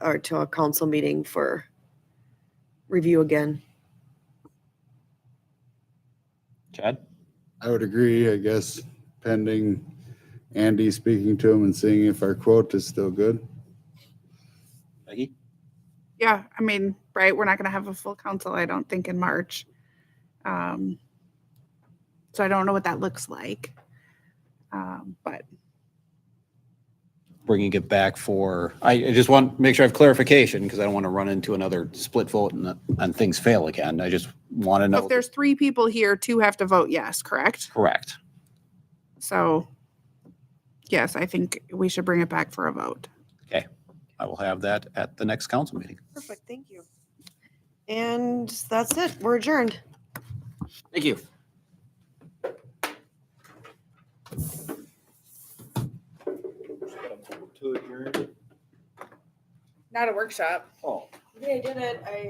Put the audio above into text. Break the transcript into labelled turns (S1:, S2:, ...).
S1: or to a council meeting for review again.
S2: Chad?
S3: I would agree, I guess, pending Andy speaking to him and seeing if our quote is still good.
S2: Maggie?
S4: Yeah, I mean, right, we're not going to have a full council, I don't think, in March. Um So I don't know what that looks like. Um But
S2: Bringing it back for, I, I just want, to make sure I have clarification because I don't want to run into another split vote and, and things fail again. I just want to know.
S4: if there's three people here, two have to vote yes, correct?
S2: Correct.
S4: So yes, I think we should bring it back for a vote.
S2: I will have that at the next council meeting.
S1: Perfect, thank you. And that's it, we're adjourned.
S2: Thank you.
S4: Not a workshop.
S2: Oh.
S1: Yeah, I did it, I